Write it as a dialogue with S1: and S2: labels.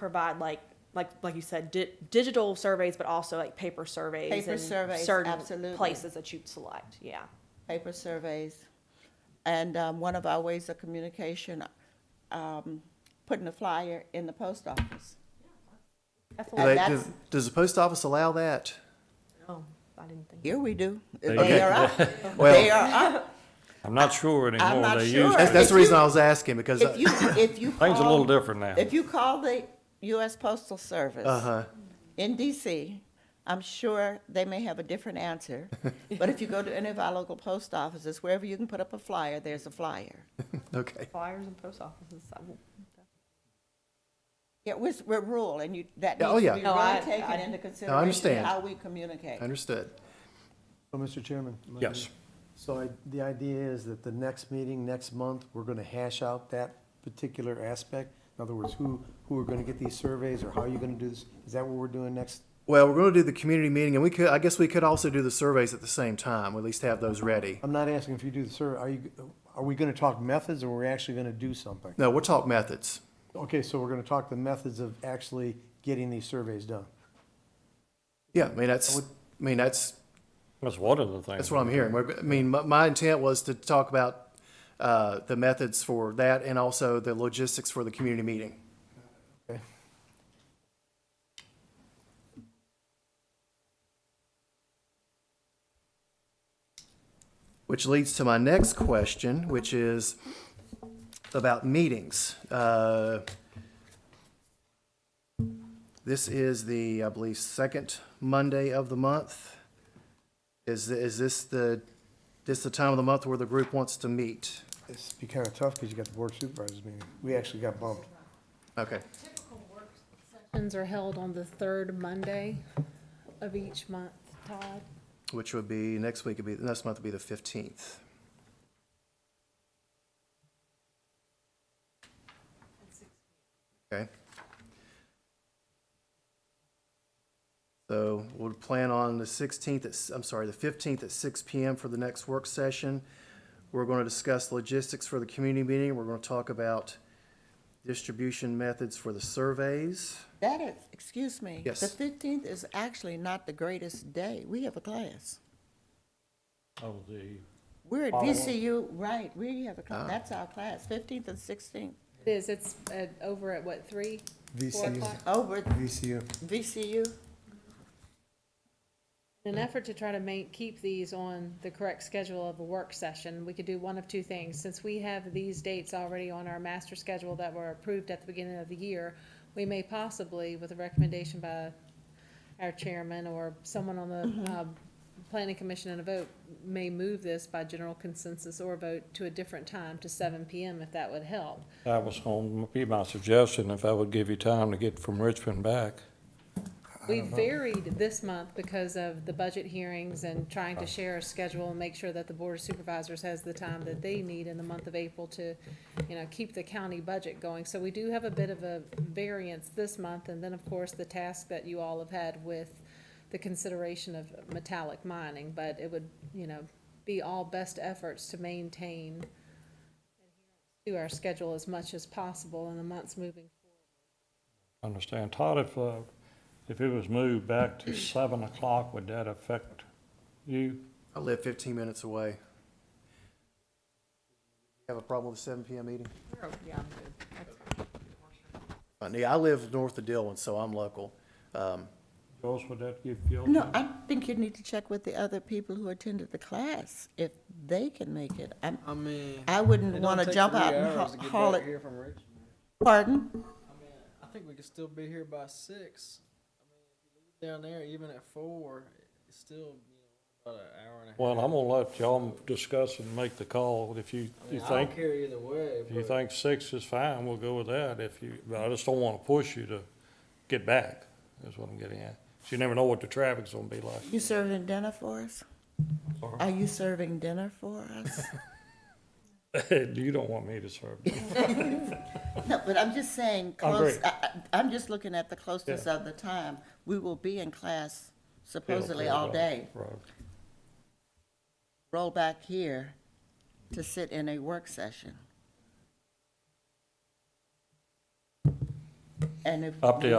S1: provide like like like you said di- digital surveys, but also like paper surveys
S2: Paper
S1: in
S2: surveys,
S1: certain
S2: absolutely.
S1: places that you'd select. Yeah,
S2: paper surveys. And um, one of our ways of communication, um, putting a flyer in the post office.
S1: Definitely.
S3: Do
S2: And
S3: they-
S2: that's-
S3: does, does the post office allow that?
S1: Oh, I didn't think.
S2: Here we do. They
S4: you go.
S2: are up. They
S3: Well,
S2: are up.
S4: I'm not sure anymore.
S2: not
S4: They
S2: sure.
S3: that's,
S4: use Things
S3: that's the
S2: If
S3: reason
S2: you-
S3: I was asking because
S2: If you, if you
S4: a little
S2: call-
S4: different now.
S2: If you call the U.S. Postal Service.
S3: uh huh.
S2: in DC, I'm sure they may have a different answer. But if you go to any of our local post offices, wherever you can put up a flyer, there's a flyer.
S3: uh, Okay.
S1: Flyers and post offices. I will-
S2: Yeah, we're, we're rural and you, that
S3: Yeah,
S2: needs
S3: oh,
S2: to
S3: yeah.
S2: be
S1: No, I-
S2: really taken
S1: I-
S2: into
S3: I
S2: consideration,
S3: understand.
S2: how we communicate.
S3: Understood.
S5: Well, Mr. Oh, Chairman? am I
S4: Yes.
S5: good? So I, the idea is that the next meeting, next month, we're gonna hash out that particular aspect? In other words, who, who are gonna get these surveys, or how are you gonna do this? Is that what we're doing next?
S3: Well, we're going to do the community meeting, and we could, I guess, we could also do the surveys at the same time. At least have those ready.
S5: I'm not asking if you do the survey, are you, are we gonna talk methods, or we're actually gonna do something?
S3: No, we'll talk methods.
S5: Okay, so we're gonna talk the methods of actually getting these surveys done.
S3: Yeah, I mean that's, I mean that's
S4: That's one of the things.
S3: That's what I'm hearing. We're- I mean, my, my intent was to talk about uh, the methods for that and also the logistics for the community meeting. Which leads to my next question, which is about meetings. Uh, This is the, I believe, second Monday of the month. Is, is this the, this the time of the month where the group wants to meet?
S5: It's be kinda tough, because you got the board supervisors meeting, we actually got bumped.
S3: Okay,
S6: Sessions are held on the third Monday of each month, Todd.
S3: which would be, next week would be, next month would be the fifteenth. Okay. So we'll plan on the sixteenth, I'm sorry, the fifteenth at six PM for the next work session. We're going to discuss logistics for the community meeting. We're going to talk about distribution methods for the surveys.
S2: That is, excuse me.
S3: Yes.
S2: The fifteenth is actually not the greatest day. We have a class.
S4: Of the,
S2: We're at VCU, right, we have a, class. that's our class, fifteenth and sixteenth,
S6: It is, it's uh, over at what, three? Four
S5: VCU.
S6: o'clock?
S2: over at
S5: VCU.
S2: VCU.
S6: In an effort to try to make, keep these on the correct schedule of a work session, we could do one of two things. Since we have these dates already on our master schedule that were approved at the beginning of the year, we may possibly, with a recommendation by our chairman or someone on the, uh, planning commission and a vote, may move this by general consensus or vote to a different time to seven PM if that would help.
S4: that was going to be my suggestion, if I would give you time to get from Richmond back.
S6: We varied this month because of the budget hearings and trying to share a schedule and make sure that the board of supervisors has the time that they need in the month of April to, you know, keep the county budget going. So we do have a bit of a variance this month, and then, of course, the task that you all have had with the consideration of metallic mining, but it would, you know, be all best efforts to maintain to our schedule as much as possible in the months moving
S4: Understand. Todd, if, uh, if it was moved back to seven o'clock, would that affect you?
S3: I live fifteen minutes away. Have a problem with the seven PM meeting?
S1: Oh, yeah, I'm good. That's fine.
S3: Uh, yeah, I live north of Dillon, so I'm local. Um,
S4: Joyce, would that give you? all
S2: No,
S4: time?
S2: I think you need to check with the other people who attended the class, if they can make it. I'm,
S7: I mean,
S2: I
S7: it
S2: wouldn't
S7: don't
S2: wanna
S7: take
S2: jump
S7: three
S2: out and
S7: hours to
S2: ho-
S7: get
S2: haul
S7: back
S2: it.
S7: Here from Richmond.
S2: Pardon?
S7: I mean, I think we could still be here by six. I mean, if you leave down there even at four, it's still you know, about an hour and a half.
S4: Well, I'm gonna let y'all discuss and make the call. If you,
S7: I, mean,
S4: you
S7: I
S4: think,
S7: don't care either way.
S4: if you
S7: but-
S4: think six is fine, we'll go with that. If you, but I just don't wanna push you to get back, is what I'm getting at. 'Cause You never know what the traffic's gonna be like.
S2: You serving dinner for us? Are you serving dinner for us?
S4: You don't want me to serve. do you?
S2: No, but I'm just saying,
S4: I agree.
S2: close, I, I- I'm just looking at the closeness of the time. We will be in class supposedly all day.
S4: Right.
S2: Roll back here to sit in a work session.
S8: And if
S2: Up to